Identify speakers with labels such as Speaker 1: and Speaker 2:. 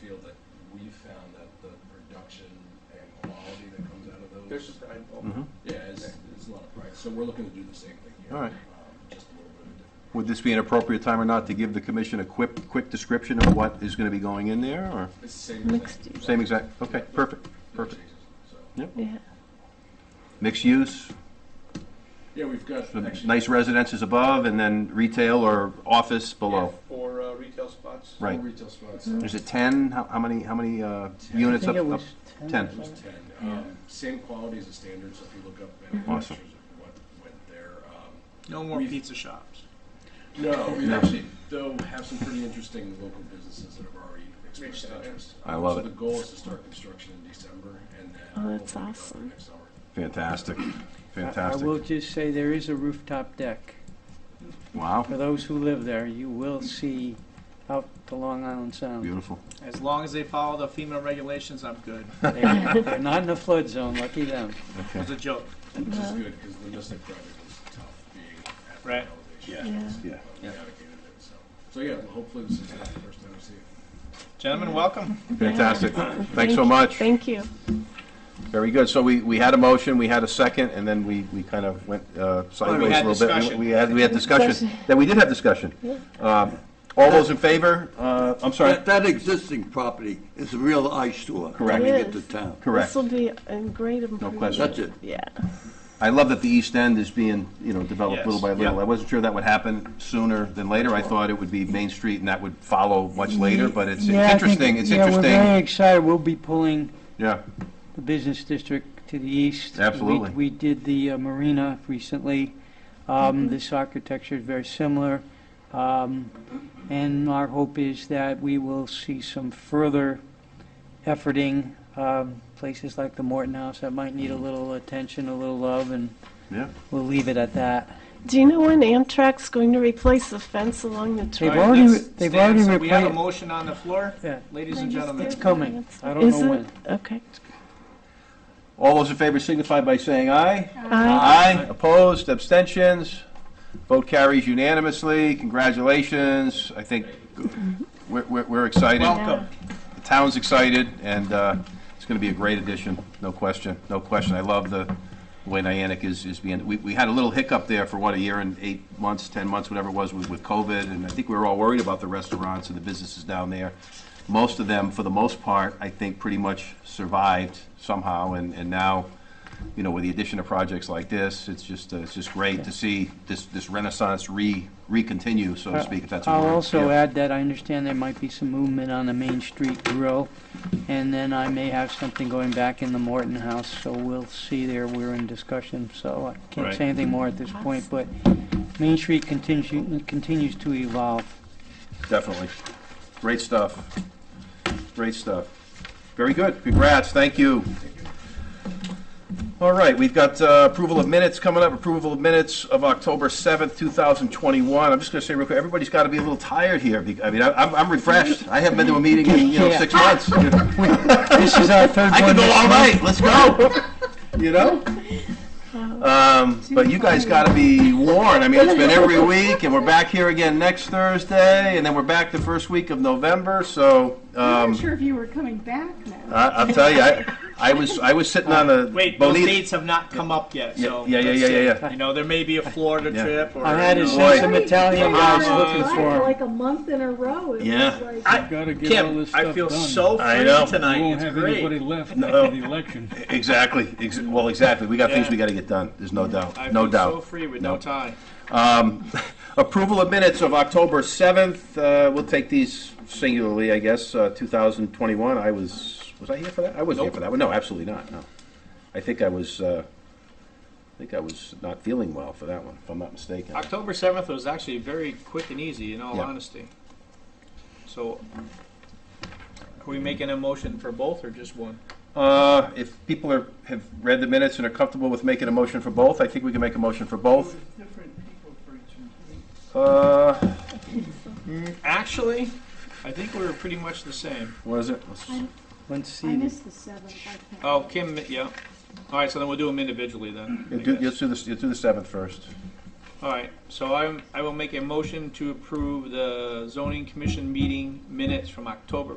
Speaker 1: feel that we found that the production and quality that comes out of those.
Speaker 2: There's some pride involved.
Speaker 3: Mhm.
Speaker 1: Yeah, it's, it's a lot of pride. So we're looking to do the same thing here.
Speaker 3: All right.
Speaker 1: um, Just a little bit of different.
Speaker 3: Would this be an appropriate time or not to give the commission a quick, quick description of what is going to be going in there, or?
Speaker 1: It's the same
Speaker 4: Mixed
Speaker 1: thing.
Speaker 4: use.
Speaker 3: Same exact, okay,
Speaker 1: Yeah.
Speaker 3: perfect,
Speaker 1: No
Speaker 3: perfect.
Speaker 1: changes, so.
Speaker 3: Yep,
Speaker 4: Yeah.
Speaker 3: mixed use,
Speaker 1: Yeah, we've got
Speaker 3: some
Speaker 1: actually.
Speaker 3: nice residences above, and then retail or office
Speaker 2: Yeah,
Speaker 3: below.
Speaker 2: Four uh, retail spots.
Speaker 1: four
Speaker 3: Right.
Speaker 1: Retail spots.
Speaker 4: Mm-hmm.
Speaker 3: Is it 10? How how many, how many uh,
Speaker 1: Ten.
Speaker 5: I
Speaker 3: units
Speaker 5: think
Speaker 3: up?
Speaker 5: it
Speaker 3: up-
Speaker 5: was 10.
Speaker 3: ten.
Speaker 1: It was
Speaker 5: wasn't it?
Speaker 1: ten. Um, Same quality as the standard, so if you look up manufacturers of what went there. um,
Speaker 6: No more
Speaker 1: We've-
Speaker 6: pizza shops.
Speaker 1: No, we actually, though, have some pretty interesting local businesses that have already expressed
Speaker 2: Reached out, yeah.
Speaker 1: interest.
Speaker 3: I
Speaker 1: Um,
Speaker 3: love
Speaker 1: so
Speaker 3: it.
Speaker 1: the goal is to start construction in December and then. hopefully be
Speaker 4: Oh, that's
Speaker 1: done for
Speaker 4: awesome.
Speaker 1: Next summer.
Speaker 3: Fantastic,
Speaker 5: I- I will
Speaker 3: fantastic.
Speaker 5: just say there is a rooftop deck.
Speaker 3: Wow,
Speaker 5: For those who live there, you will see out to Long Island Sound.
Speaker 3: beautiful.
Speaker 6: As long as they follow the FEMA regulations, I'm good.
Speaker 5: They're they're not in the flood zone, lucky them.
Speaker 6: It was a joke.
Speaker 1: Which is
Speaker 4: Yeah.
Speaker 1: good, because the Mystic project was tough being at that
Speaker 6: Right.
Speaker 1: elevation.
Speaker 4: Yeah.
Speaker 3: Yeah.
Speaker 1: But We navigated it, so. So, yeah, hopefully this is not the first time we see it.
Speaker 6: Gentlemen, welcome.
Speaker 3: Fantastic.
Speaker 4: Thank
Speaker 3: Thanks so
Speaker 4: you-
Speaker 3: much.
Speaker 4: Thank you.
Speaker 3: Very good. So we, we had a motion, we had a second, and then we, we kind of went uh, sideways a
Speaker 6: had
Speaker 3: little bit.
Speaker 6: discussion.
Speaker 3: We had, we had discussion.
Speaker 4: Discussion.
Speaker 3: Then we did have discussion. Um, All those in favor? Uh, I'm sorry.
Speaker 7: That, that existing property is a real eyesore
Speaker 3: Correct.
Speaker 7: coming
Speaker 4: It
Speaker 7: into
Speaker 4: is.
Speaker 7: town.
Speaker 3: Correct.
Speaker 4: This will be a great improvement.
Speaker 3: question.
Speaker 7: That's it.
Speaker 4: Yeah.
Speaker 3: I love that the East End is being, you know, developed
Speaker 6: Yes.
Speaker 3: little by little.
Speaker 6: Yeah.
Speaker 3: I wasn't sure that would happen sooner than later. I thought it would be Main Street and that would follow much later, but it's
Speaker 5: Yeah, I
Speaker 3: it's
Speaker 5: think-
Speaker 3: interesting, it's
Speaker 5: Yeah, we're very
Speaker 3: interesting.
Speaker 5: excited. We'll be pulling
Speaker 3: Yeah,
Speaker 5: the business district to the east.
Speaker 3: Absolutely.
Speaker 5: We, we did the uh, marina recently. Um, This architecture is very similar. Um, and our hope is that we will see some further efforting, um, places like the Morton House that might need a little attention, a little love, and
Speaker 3: Mm-hmm. yeah.
Speaker 5: we'll leave it at that.
Speaker 4: Do you know when Amtrak's going to replace the fence along the
Speaker 5: They've
Speaker 4: trail?
Speaker 6: All right,
Speaker 5: already
Speaker 6: let's
Speaker 5: re- they've
Speaker 6: stand.
Speaker 5: already
Speaker 6: So We have a
Speaker 5: replaced-
Speaker 6: motion on the floor,
Speaker 5: Yeah.
Speaker 6: ladies and gentlemen.
Speaker 5: It's coming. I don't
Speaker 4: Is
Speaker 5: know
Speaker 4: it?
Speaker 5: when.
Speaker 4: Okay.
Speaker 3: All those in favor signify by saying aye.
Speaker 4: Aye.
Speaker 3: Aye, opposed, abstentions, vote carries unanimously, congratulations, I think we're, we're we're excited,
Speaker 6: Welcome.
Speaker 3: the town's excited, and uh, it's gonna be a great addition, no question, no question, I love the way Niantic is, is being, we, we had a little hiccup there for what, a year and eight months, 10 months, whatever it was, with with COVID, and I think we were all worried about the restaurants and the businesses down there. Most of them, for the most part, I think pretty much survived somehow, and, and now, you know, with the addition of projects like this, it's just, uh, it's just great to see this, this renaissance re, re-continue, so to speak, if that's a word.
Speaker 5: Uh, I'll also
Speaker 3: Yeah.
Speaker 5: add that I understand there might be some movement on the Main Street Grill, and then I may have something going back in the Morton House, so we'll see there. We're in discussion, so I can't
Speaker 3: Right.
Speaker 5: say anything more at this point, but Main Street continues, continues to evolve.
Speaker 3: Definitely. Great stuff. Great stuff. Very good. Congrats. Thank you. All right, we've got uh, approval of minutes coming up, approval of minutes of October 7th, 2021. I'm just going to say real quick, everybody's got to be a little tired here. be- I mean, I- I'm I'm refreshed. I haven't been to a meeting in, you know, six months. I
Speaker 5: This is our third
Speaker 3: could
Speaker 5: one.
Speaker 3: go
Speaker 5: this
Speaker 3: all
Speaker 5: month.
Speaker 3: night. Let's go. You know? Um, But you guys got to be warned. I mean, it's been every week, and we're back here again next Thursday, and then we're back the first week of November, so.
Speaker 8: I'm
Speaker 3: um, Uh,
Speaker 8: not sure if you were coming back now.
Speaker 3: I, I'll tell you, I, I was, I was sitting on a.
Speaker 6: Wait, those
Speaker 3: Bonita-
Speaker 6: dates have not come up yet,
Speaker 3: Yeah,
Speaker 6: so.
Speaker 3: yeah, yeah,
Speaker 6: let's
Speaker 3: yeah, yeah,
Speaker 6: see.
Speaker 3: yeah.
Speaker 6: You know, there may be a Florida
Speaker 3: Yeah.
Speaker 6: trip or.
Speaker 5: I had
Speaker 6: you
Speaker 5: to
Speaker 6: know-
Speaker 3: Boy.
Speaker 5: send some Italian guys looking
Speaker 8: For
Speaker 5: for him.
Speaker 8: Like a month in a row. It was
Speaker 3: Yeah.
Speaker 8: like-
Speaker 6: I-
Speaker 9: Gotta get all
Speaker 6: Kim,
Speaker 9: this
Speaker 6: I
Speaker 9: stuff
Speaker 6: feel
Speaker 9: done.
Speaker 6: so
Speaker 3: I
Speaker 6: free
Speaker 3: know.
Speaker 9: We
Speaker 6: tonight.
Speaker 9: won't
Speaker 6: It's
Speaker 9: have anybody
Speaker 6: great.
Speaker 9: left after the election.
Speaker 3: Exactly, ex- well, exactly, we got things
Speaker 6: Yeah.
Speaker 3: we gotta get done, there's no
Speaker 6: I
Speaker 3: doubt,
Speaker 6: feel
Speaker 3: no
Speaker 6: so
Speaker 3: doubt.
Speaker 6: free with
Speaker 3: No.
Speaker 6: no tie.
Speaker 3: Um, approval of minutes of October seventh, uh, we'll take these singularly, I guess, uh, two thousand twenty-one, I was, was I here for that? I wasn't here for that one, no, absolutely not, no. I think I was, uh, I think I was not feeling well for that one, if I'm not mistaken.
Speaker 6: October 7th was actually very quick and easy, in all
Speaker 3: Yeah.
Speaker 6: honesty. So, are we making a motion for both or just one?
Speaker 3: Uh, if people are, have read the minutes and are comfortable with making a motion for both, I think we can make a motion for both. Uh,
Speaker 6: Actually, I think we were pretty much the same.
Speaker 3: what is it? Let's-
Speaker 5: Let's see.
Speaker 8: I missed the seventh. I can't-
Speaker 6: Oh, Kim, yeah. All right, so then we'll do them individually then. I
Speaker 3: You'll do,
Speaker 6: guess.
Speaker 3: you'll do the, you'll do the seventh first.
Speaker 6: All right, so I'm, I will make a motion to approve the zoning commission meeting minutes from October,